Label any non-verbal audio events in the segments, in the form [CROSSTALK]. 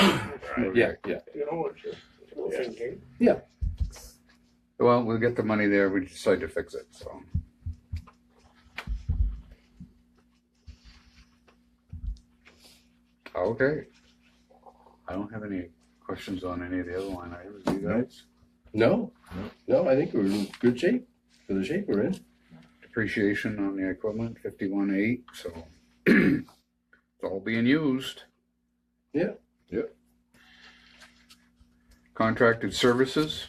right? Yeah, yeah. You know, it's just little Yeah. thinking. Well, we'll get the money there. We decide to fix it, so. Okay. I don't have any questions on any of the other line items, you guys. No, no, I think we're in good shape for the shape we're in. Depreciation on the equipment, fifty-one eight, so. [CLEARS THROAT] It's all being used. Yeah. yeah. Contracted services,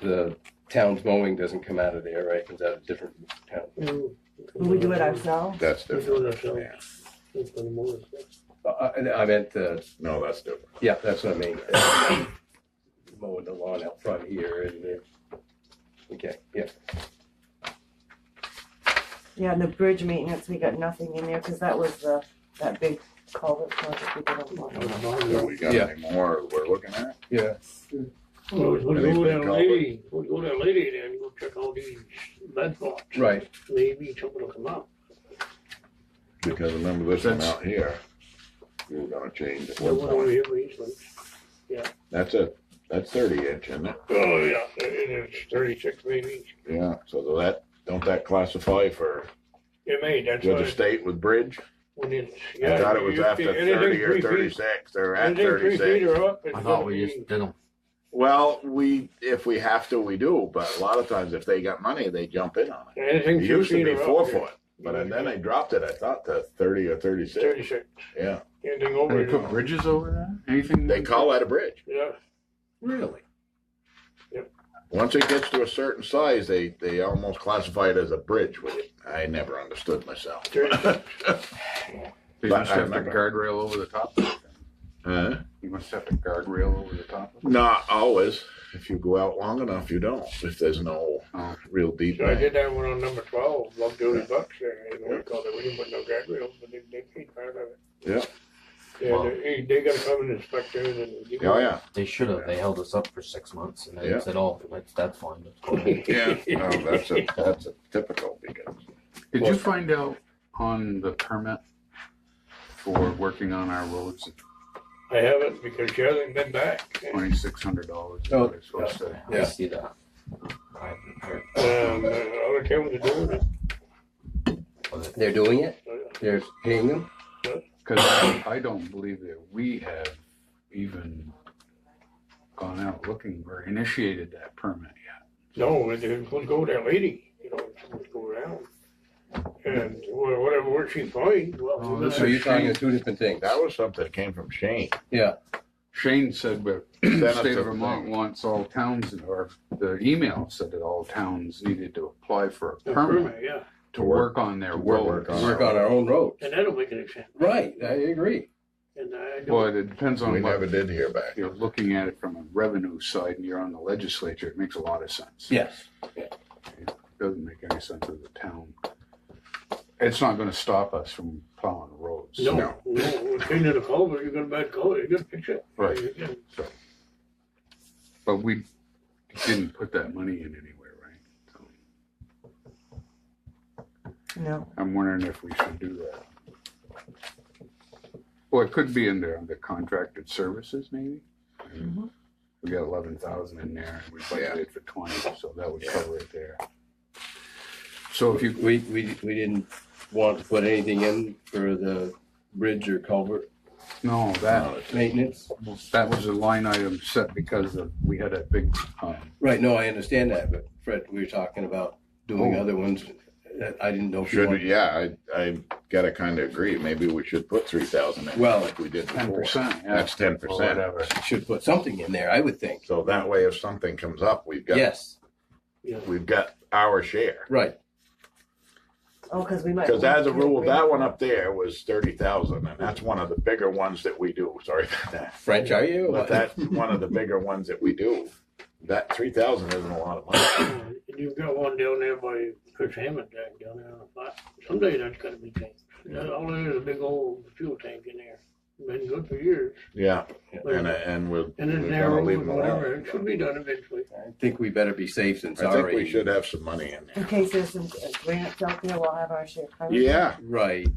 The town's mowing doesn't come out of there, right? Comes out of different town. Mm. Will we do it ourselves? That's We different. do it ourselves. It's gonna move us. Uh, I, I meant the, No, that's different. yeah, that's what I mean. [COUGHS] Mowing the lawn out front here and there. Okay, yeah. Yeah, and the bridge maintenance, we got nothing in there, cause that was the, that big culvert project we did on I don't one. Do know. we got Yeah. any more we're looking at? Well, we Anything go to that culvert? lady, we go to that lady there and go check all these bed spots. Right. Maybe something will come up. Because remember this That's- amount here, we were gonna change at The one one over point. here, we usually. That's a, that's thirty inch, isn't it? Oh, yeah, it is thirty-six maybe. Yeah, so that, don't that classify for It may, that's judge of why. state with bridge? when it's- I yeah, thought it was you- after anything thirty or three feet- thirty-six, or at anything three feet thirty-six. or up, it's I thought gonna we just be. did them. Well, we, if we have to, we do, but a lot of times if they got money, they jump in on it. Anything It three used to feet be or up. four you're- foot, but then they dropped it, I thought, to thirty or thirty-six, Thirty-six, yeah. anything over. they you're put on. bridges over that, anything? They call that a bridge. Yeah, Really? Once it gets to a certain size, they, they almost classify it as a bridge with it. I never understood myself. thirty-six. They But must I have the remember. guardrail over the top of it. Uh, You must have the guardrail over the top of it. not always. If you go out long enough, you don't. If there's no Oh. real deep. So I bank. did that one on number twelve, love Jody Bucks there, and we called it, we didn't put no guardrails, but they, they keep part of it. Yeah. Yeah, they, they gotta come and inspect it and. give Oh yeah. They should have. They held us up for six months and Yeah. they said, oh, that's, that's fine. That's cool." [LAUGHS] Yeah. No, that's a that's a typical because Did you find out on the permit for working on our roads, I haven't, because she hasn't been back. twenty-six hundred dollars? Oh, I Yeah. see that. I haven't heard Um, other towns are doing it. uh, of it. They're doing it. so, They're paying them. Cause I, I don't believe that we have even gone out looking or initiated that permit yet. No, it- it's gonna go to that lady, you know, it's gonna go around. And wha- whatever work she finds, well. Oh, we're this So gonna- is- you're talking of two different things. that was something that came from Shane. Shane said, [CLEARS THROAT] but Send the us state the of Vermont thing. wants all towns, or the email said that all towns needed to apply for a the permit permit, Yeah, to work on their To roads. work on- Work on our own road. and that'll make an exception, Right, I agree. and I Well, don't, it depends We on never what, did hear back. you're looking at it from a revenue side and you're on the legislature, it makes a lot of sense. Yes. Doesn't make any sense to the town. It's not gonna stop us from plowing roads. no, No. no, we're cleaning the culvert, you're gonna bad culvert, you're gonna fix it. Right. You can- But we didn't put that money in anywhere, right? So No, I'm wondering if we should do that. Well, it could be in there under contracted services maybe. Mm-hmm. Mhm. We got eleven thousand in there and we budgeted for twenty, so that would Yeah. cover it there. So if you We, we, we didn't want to put anything in for the bridge or culvert No, that, maintenance. that was a line item set because of, we had a big, um, Right, no, I understand that, but Fred, we were talking about doing Oh. other ones. that I didn't know. if you Should wanted- yeah, I I gotta kinda agree. Maybe we should put three thousand in Well, like we did ten before. percent. That's ten percent. Whatever. Should put something in there, I would think. So that way if something comes up, we've got Yes, Yeah. we've got our share. right. oh, cause we might. Because as a rule, Yeah. that one up there was thirty thousand, and that's one of the bigger ones that we do. Sorry about that. French, are you? But that's one of the bigger ones that we do. That three thousand isn't a lot of money. And you've got one down there by Chris Hammond tank down there on the flat, someday that's gotta be changed. That- All there is a big old fuel tank in there, been good for years. Yeah, Like, and, and we're, And then we're gonna narrow leave and them alone. whatever, it should be done eventually. [LAUGHS] I think we better be safe than I sorry. think we should have some money in there. In case there's some uh, grants out there, we'll have our share. covered. Yeah, Right.